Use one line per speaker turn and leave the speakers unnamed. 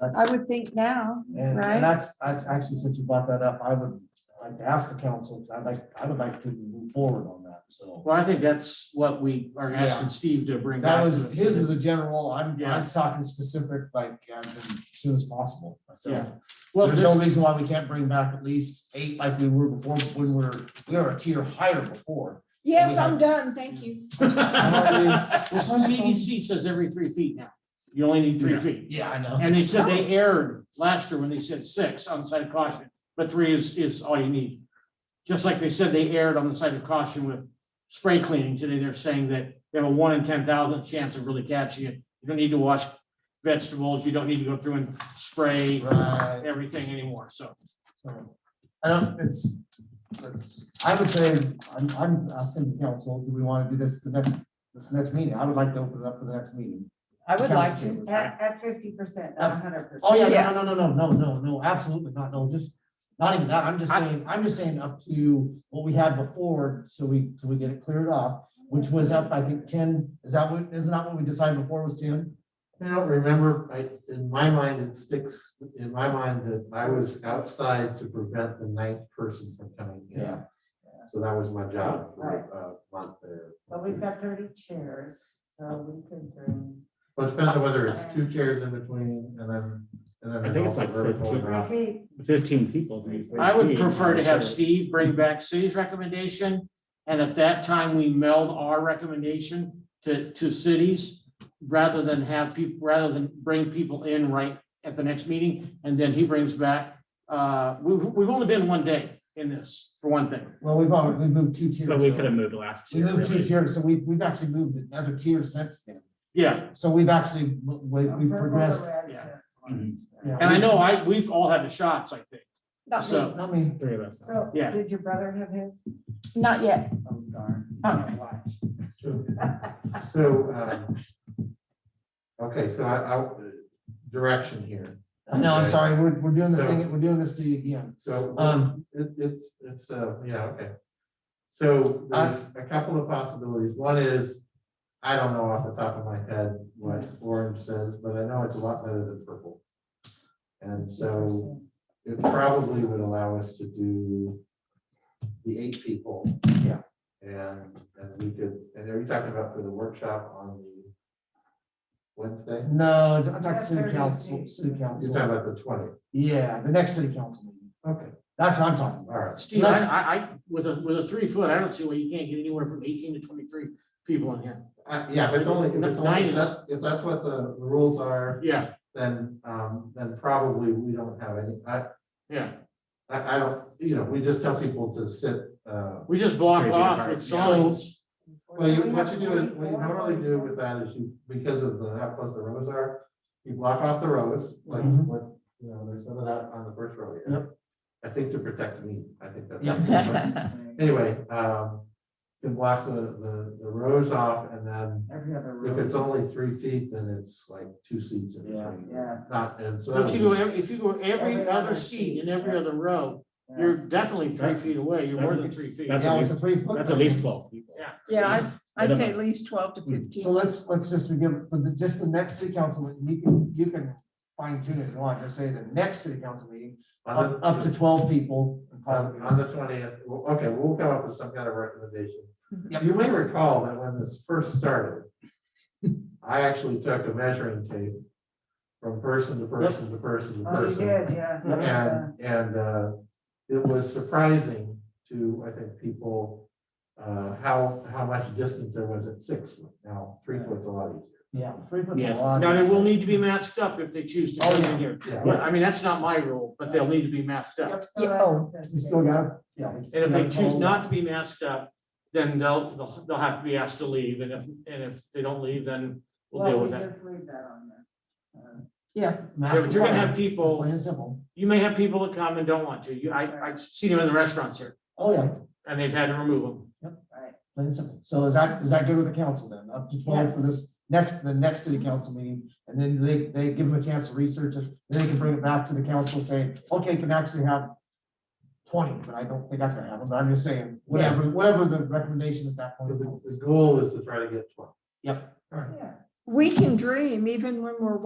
That's-
I would think now,
And,
right?
and that's, that's actually, since you brought that up, I would like to ask the council, 'cause I'd like, I would like to move forward on that, so.
Well, I think that's what we are asking Steve to bring back.
That
to
was,
us.
his is the general, I'm, I'm
Yeah.
just talking specific, like, as in soon as possible,
Yeah.
so.
Well,
There's no
this,
reason why we can't bring back at least eight like we were before, when we're, we were a tier higher before.
Yes, I'm done, thank you.
Sorry.
this CDC says every three feet now. You only need three feet.
Yeah, I know.
And they said they erred last year when they said six on the side of caution, but three is, is all you need. Just like they said they erred on the side of caution with spray cleaning today, they're saying that they have a one in ten thousand chance of really catching it. You don't need to wash vegetables, you don't need to go through and spray uh,
Right.
everything anymore, so.
So, I don't, it's, it's, I would say, I'm, I'm asking the council, do we want to do this the next, this next meeting? I would like to open it up for the next meeting.
I would like to. uh,
Council chambers.
At, at fifty percent, not hundred percent.
Oh, yeah,
Yeah.
no, no, no, no, no, no, no, absolutely not, no, just, not even that, I'm just
I-
saying, I'm just saying up to what we had before, so we, so we get it cleared off, which was up, I think, ten, is that what, isn't that what we decided before was ten?
I don't remember, I, in my mind, it sticks, in my mind, that I was outside to prevent the ninth person from coming in. So that was my job for a month there.
But we've got thirty chairs, so we could bring,
But it depends on whether it's two chairs in between and then, and then.
I think it's like
also vertical
15.
or not.
okay,
Fifteen people. maybe.
I would
15,
prefer to have
so-
Steve bring back city's recommendation, and at that time, we meld our recommendation to, to cities rather than have people, rather than bring people in right at the next meeting, and then he brings back, uh, we, we've only been one day in this, for one thing.
Well, we've already, we moved two tiers.
But we could have moved last
We
year.
moved two
really.
tiers, so we, we've actually moved another tier since then.
Yeah,
So we've actually, we- we've progressed.
yeah.
Mm-hmm.
yeah,
and I
we-
know I, we've all had the shots, I think.
Not me,
So-
Not me.
Three of us.
So,
Yeah.
did your brother have his?
not yet.
Oh, darn.
Okay.
So, um, okay, so I, I, direction here.
No, I'm
Okay.
sorry, we're, we're doing the
So-
thing, we're doing this to you again.
So. uh,
Um,
It, it's, it's, uh, yeah, okay. So there's
Uh,
a couple of possibilities. One is, I don't know off the top of my head what orange says, but I know it's a lot better than purple. And so it probably would allow us to do the eight people.
Yeah.
And, and we could, and are you talking about for the workshop on the Wednesday?
no, I'm talking city
That's
council,
thirty.
city
You're talking
council.
about the twentieth.
Yeah, the next city council meeting.
Okay,
That's what I'm talking
all
about.
right.
Steve, I, I, I- with a, with a three foot, I don't see why you can't get anywhere from eighteen to twenty-three people in here.
Uh, yeah, if it's only, if it's
Nine
only,
is-
if that's- if that's what the the rules are,
Yeah,
then, um, then probably we don't have any, I,
yeah.
I, I don't, you know, we just tell people to sit, uh,
We just block
Crazy
off
apart.
with signs.
well, you, what you do, is what you normally do with that is you, because of the, how close the roads are, you block off the roads, like,
Mhm.
what, you know, there's some of that on the first row here. I think to protect me, I think that's.
Yeah.
Anyway, um, you block the, the, the rows off and then
Every other
if
room.
it's only three feet, then it's like two seats in
Yeah.
between.
Yeah.
Not, and so. that
If you
would
go,
be-
every- if you go every
Every
other
other
seat
seat,
in every
yeah.
other row,
yeah.
you're definitely three feet away. You're more than three feet.
That's
Yeah,
at
it's a
least,
three foot
that's at
thing.
least twelve people.
Yeah.
Yeah, I- I'd say
Minimum.
at least twelve to fifteen.
So let's, let's just, we give, for the, just the next city council, meeting, you can, you can fine tune it if you want, just say the next city council meeting,
On
up,
the-
up to twelve people. and call it
On,
good.
on the twentieth, okay, we'll come up with some kind of recommendation.
Mhm.
Yep.
You may recall that when this first started, I actually took a measuring tape from person to person to person to
Oh, you
person.
did, yeah. Yeah.
And, and, uh, it was surprising to, I think, people, uh, how, how much distance there was at six foot. Now, three foot's a lot easier.
Yeah, three foot's a
Yes.
lot.
Now, they will need to be masked up if they choose to
Oh,
come
yeah.
in here.
Yeah,
But I mean, that's not my rule, but they'll need to be masked up.
So that's-
oh,
We
that's
still
it.
got, yeah. we
And
still
if they
gotta
choose
call-
not to be masked up, then they'll, they'll, they'll have to be asked to leave. And if, and if they don't leave, then we'll deal
Well, we
with that.
just leave that on there. Uh,
Yeah.
Yeah, but you're gonna have
Plain
people,
and simple.
you may have people that come and don't want to. You, I, I've seen them in the restaurants here
Oh, yeah,
and they've had to remove them.
Right,
plain and simple. So is that, is that good with the council then? Up to twelve for this next, the next city council meeting? And then they, they give them a chance to research it, then they can bring it back to the council saying, okay, you can actually have twenty, but I don't think that's gonna happen, but I'm just saying, whatever, whatever the recommendation at that point.
The, the goal is to try to get twelve.
Yep.
All right.
yeah.
we can dream even when we're